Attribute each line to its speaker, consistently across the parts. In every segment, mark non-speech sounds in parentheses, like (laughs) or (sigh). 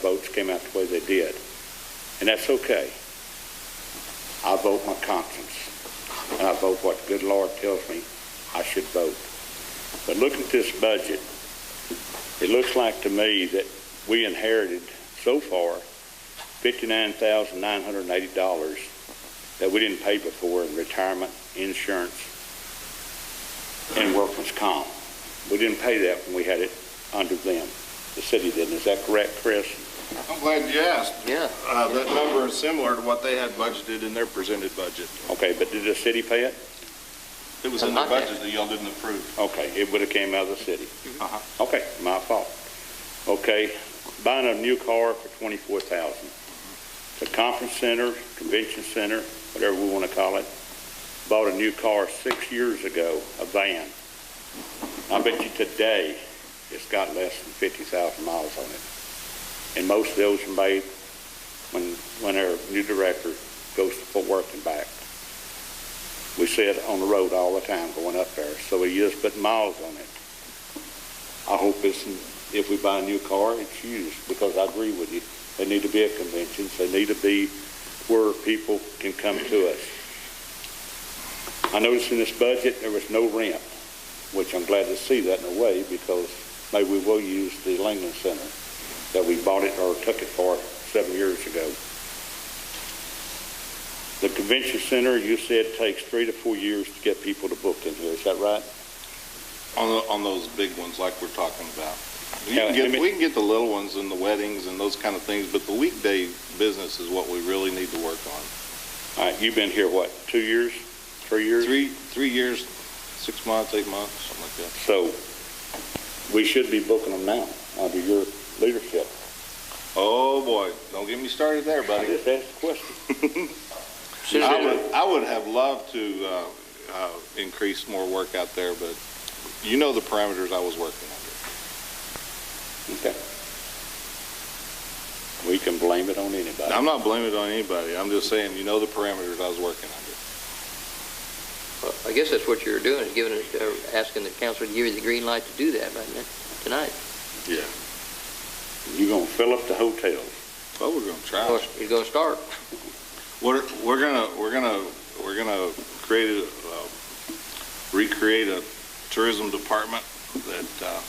Speaker 1: votes came out the way they did. And that's okay. I vote my conscience, and I vote what the good Lord tells me I should vote. But looking at this budget, it looks like to me that we inherited so far $59,980 that we didn't pay before in retirement, insurance, and workman's comp. We didn't pay that when we had it under them. The city didn't. Is that correct, Chris?
Speaker 2: I'm glad you asked.
Speaker 3: Yeah.
Speaker 2: Uh, That number is similar to what they had budgeted in their presented budget.
Speaker 1: Okay, but did the city pay it?
Speaker 2: It was in the
Speaker 3: Not that-
Speaker 2: budget that y'all didn't approve.
Speaker 1: Okay, it would have came out of the city.
Speaker 2: Uh-huh.
Speaker 1: Okay, my fault. Okay, buying a new car for twenty-four thousand. The conference center, convention center, whatever we want to call it, bought a new car six years ago, a van. I bet you today, it's got less than fifty thousand miles on it. And most of those are made when, when our new director goes to Fort Worth and back. We see it on the road all the time going up there, so he is putting miles on it. I hope it's, if we buy a new car, it's used, because I agree with you. They need to be at conventions, they need to be where people can come to us. I noticed in this budget, there was no rent, which I'm glad to see that in a way, because maybe we will use the Langland Center that we bought it or took it for seven years ago. The convention center, you said, takes three to four years to get people to book in here, is that right?
Speaker 2: On, the- on those big ones like we're talking about. You
Speaker 1: Yeah,
Speaker 2: can
Speaker 1: I
Speaker 2: get,
Speaker 1: mean-
Speaker 2: we can get the little ones and the weddings and those kind of things, but the weekday business is what we really need to work on.
Speaker 1: All right, you've been here, what, two years, three years?
Speaker 2: Three, three years, six months, eight months, something like that.
Speaker 1: So we should be booking them now under your leadership.
Speaker 2: Oh, boy, don't get me started there,
Speaker 1: I
Speaker 2: buddy.
Speaker 1: just asked a question.
Speaker 3: Should
Speaker 2: I
Speaker 3: have
Speaker 2: would, I would have loved to uh, uh, increase more work out there, but you know the parameters I was working under.
Speaker 1: Okay. We can blame it on anybody.
Speaker 2: I'm not blaming it on anybody. I'm just saying, you know the parameters I was working under.
Speaker 3: Well, I guess that's what you're doing, is giving, it- uh, asking the council to give you the green light to do that right now, tonight.
Speaker 2: Yeah.
Speaker 1: You're gonna fill up the hotels.
Speaker 2: Well, we're gonna
Speaker 3: Of
Speaker 2: try.
Speaker 3: course, it's going to start.
Speaker 2: We're, we're gonna, we're gonna, we're gonna create a, uh, recreate a tourism department that uh,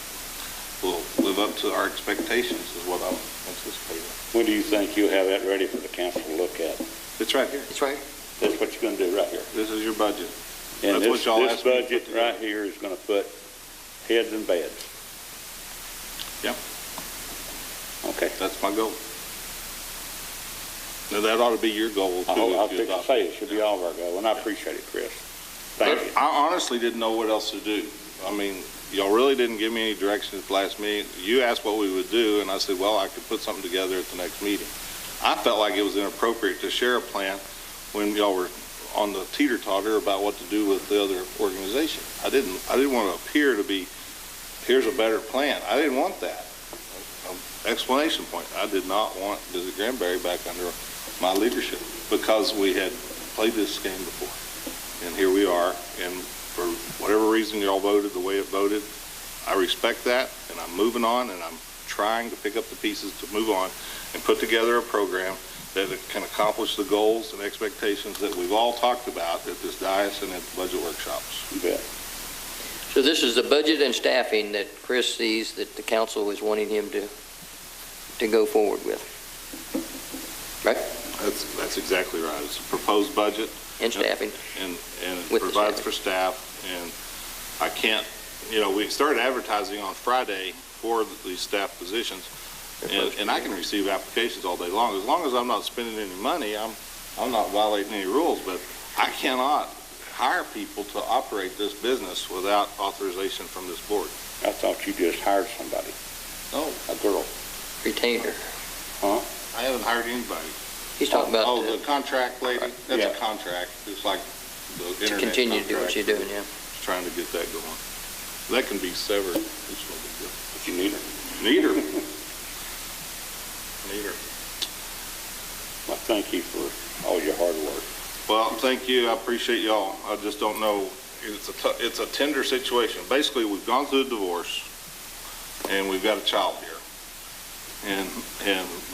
Speaker 2: will live up to our expectations is what I'm anticipating.
Speaker 1: When do you think you'll have that ready for the council to look at?
Speaker 2: It's right here.
Speaker 3: It's right.
Speaker 1: That's what you're gonna do right here.
Speaker 2: This is your budget.
Speaker 1: And
Speaker 2: That's what
Speaker 1: this,
Speaker 2: y'all
Speaker 1: this
Speaker 2: asked me to put
Speaker 1: budget
Speaker 2: together.
Speaker 1: right here is gonna put heads in beds.
Speaker 2: Yep.
Speaker 1: Okay.
Speaker 2: That's my goal. Now, that ought to be your goal too.
Speaker 1: I hope, I
Speaker 2: if you
Speaker 1: think I
Speaker 2: adopt
Speaker 1: say it should be all of our goal, and I appreciate it, Chris. Thank you.
Speaker 2: I honestly didn't know what else to do. I mean, y'all really didn't give me any direction at the last meeting. You asked what we would do, and I said, well, I could put something together at the next meeting. I felt like it was inappropriate to share a plan when y'all were on the teeter-totter about what to do with the other organization. I didn't, I didn't want to appear to be, here's a better plan. I didn't want that. Um, Explanation point, I did not want Visit Granbury back under my leadership because we had played this game before. And here we are, and for whatever reason y'all voted the way it voted, I respect that, and I'm moving on, and I'm trying to pick up the pieces to move on and put together a program that can accomplish the goals and expectations that we've all talked about at this dais and at the budget workshops.
Speaker 1: You bet.
Speaker 3: So this is the budget and staffing that Chris sees that the council is wanting him to, to go forward with. Right?
Speaker 2: That's, that's exactly right. It's a proposed budget,
Speaker 3: And staffing.
Speaker 2: and, and it
Speaker 3: With the
Speaker 2: provides
Speaker 3: staffing.
Speaker 2: for staff, and I can't, you know, we started advertising on Friday for these staff positions, and, and I can receive applications all day long, as long as I'm not spending any money, I'm, I'm not violating any rules, but I cannot hire people to operate this business without authorization from this board.
Speaker 1: I thought you just hired somebody,
Speaker 2: No,
Speaker 1: a girl.
Speaker 3: Retainer.
Speaker 2: I haven't hired anybody.
Speaker 3: He's talking about
Speaker 2: Oh,
Speaker 3: uh,
Speaker 2: the contract lady,
Speaker 1: Yeah.
Speaker 2: that's a contract, it's like the internet
Speaker 3: to
Speaker 2: contract.
Speaker 3: continue to do what you're doing, yeah.
Speaker 2: Trying to get that going. That can be severed, it's no big deal.
Speaker 1: If you need her.
Speaker 3: (laughs)
Speaker 2: Neither. Neither.
Speaker 1: Well, thank you for all your hard work.
Speaker 2: Well, thank you, I appreciate y'all. I just don't know, it's a, tou- it's a tender situation. Basically, we've gone through a divorce, and we've got a child here. and, and